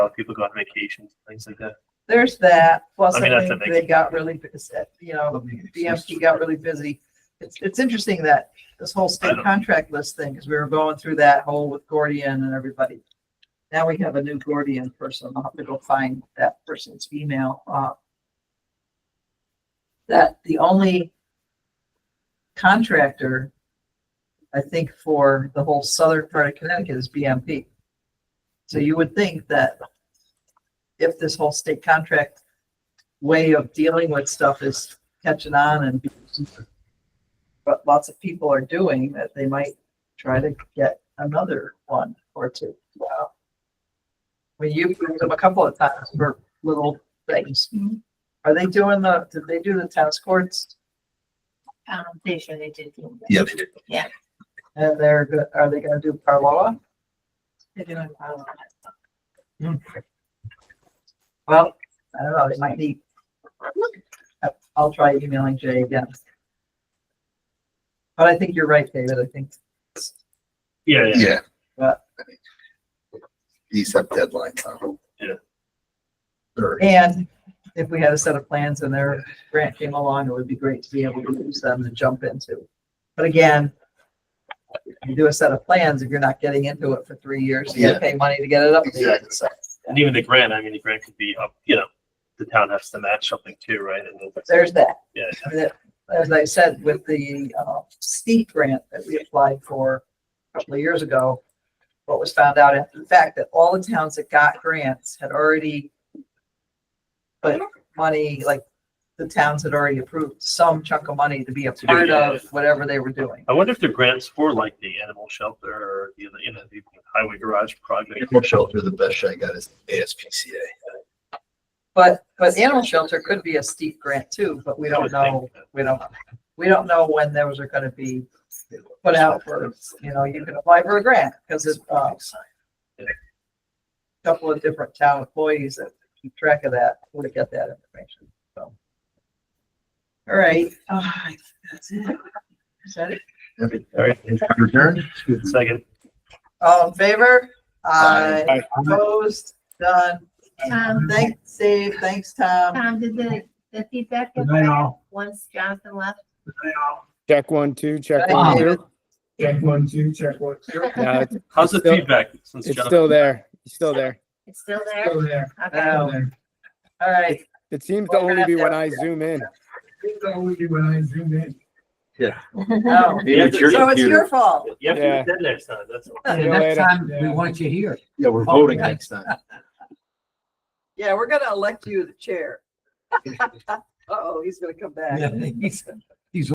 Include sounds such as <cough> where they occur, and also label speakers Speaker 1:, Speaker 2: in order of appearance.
Speaker 1: uh, people go on vacations, things like that.
Speaker 2: There's that, plus
Speaker 1: I
Speaker 2: I
Speaker 1: mean, that's
Speaker 2: think
Speaker 1: a big-
Speaker 2: they got really, busy. you know, BMT got really busy. It's, it's interesting that this whole
Speaker 1: I
Speaker 2: state
Speaker 1: don't-
Speaker 2: contract list thing, because we were going through that whole with Gordian and everybody. Now we have a new Gordian person. I'll have to go find that person's email. uh, That the only contractor, I think, for the whole southern part of Connecticut is BMP. So you would think that if this whole state contract way of dealing with stuff is catching on and but lots of people are doing that they might try to get another one or two. Wow. When you've used them a couple of times for little things. Are they doing the, did they do the tennis courts?
Speaker 3: Um, I'm pretty sure they did. do that.
Speaker 4: Yeah, they did.
Speaker 2: And they're, go- are they gonna do Parloa? Hmm.
Speaker 3: They're doing all of that.
Speaker 2: Well, I don't know, they might need. I- I'll try emailing Jay again. But I think you're right, David. I think
Speaker 1: Yeah, yeah.
Speaker 4: Yeah.
Speaker 2: But-
Speaker 4: These have deadlines on them.
Speaker 1: Yeah.
Speaker 4: Or
Speaker 2: And if we had a set of plans and their grant came along, it would be great to be able to use them to jump into. But again, you do a set of plans, if you're not getting into it for three years, you gotta pay money to get it up. there.
Speaker 4: Exactly.
Speaker 2: So
Speaker 1: And even the grant, I mean, the grant could be up, you know, the town has to match something too, right? And then-
Speaker 2: There's that.
Speaker 1: Yeah.
Speaker 2: I mean, As I said, with the uh, steep grant that we applied for a couple of years ago, what was found out after the fact that all the towns that got grants had already put money, like the towns had already approved some chunk of money to be a
Speaker 1: To do,
Speaker 2: part
Speaker 1: yeah.
Speaker 2: of whatever they were doing.
Speaker 1: I wonder if the grants for like the animal shelter or, you know, you know, the highway garage project.
Speaker 4: animal shelter, the best shot I got is ASPCA.
Speaker 2: But, but animal shelter could be a steep grant too, but we
Speaker 1: I
Speaker 2: don't
Speaker 1: would
Speaker 2: know,
Speaker 1: think.
Speaker 2: we don't, we don't know when those are gonna be put out for, you know, you can apply for a grant, because it's, uh, couple of different town employees that keep track of that, would have got that information, so. All right, uh, that's it. Is that it?
Speaker 1: All right,
Speaker 4: Return?
Speaker 1: second.
Speaker 2: All in favor?
Speaker 4: Aye.
Speaker 2: Aye. Opposed, done.
Speaker 3: Tom,
Speaker 2: Thanks, Dave, thanks, Tom.
Speaker 3: Tom, Um, did the, the feedback get
Speaker 5: Good night,
Speaker 3: back
Speaker 5: all.
Speaker 3: once Jonathan left?
Speaker 6: Check one, two, check
Speaker 2: Thank
Speaker 6: one,
Speaker 2: you.
Speaker 6: two.
Speaker 5: Check one, two, check one, two.
Speaker 6: No, it's,
Speaker 1: How's the
Speaker 6: Still-
Speaker 1: feedback since?
Speaker 6: it's
Speaker 1: Jonathan-
Speaker 6: still there. It's still there.
Speaker 3: It's still there?
Speaker 5: Still there,
Speaker 3: Okay.
Speaker 5: still
Speaker 2: Oh,
Speaker 5: there.
Speaker 2: All right,
Speaker 6: It seems
Speaker 2: We're
Speaker 6: to
Speaker 2: gonna
Speaker 6: only
Speaker 2: have
Speaker 6: be
Speaker 2: to-
Speaker 6: when I zoom in.
Speaker 5: It's always when I zoom in.
Speaker 2: oh,
Speaker 1: Yeah, it's your
Speaker 2: so it's
Speaker 1: computer.
Speaker 2: your fault.
Speaker 1: You have to
Speaker 6: Yeah.
Speaker 1: attend next time, that's all.
Speaker 6: See you later.
Speaker 5: we want you here.
Speaker 4: Yeah, we're voting next time.
Speaker 2: <laughs>
Speaker 5: <laughs>
Speaker 2: Yeah, we're gonna elect you the chair. Uh-oh, he's gonna come back.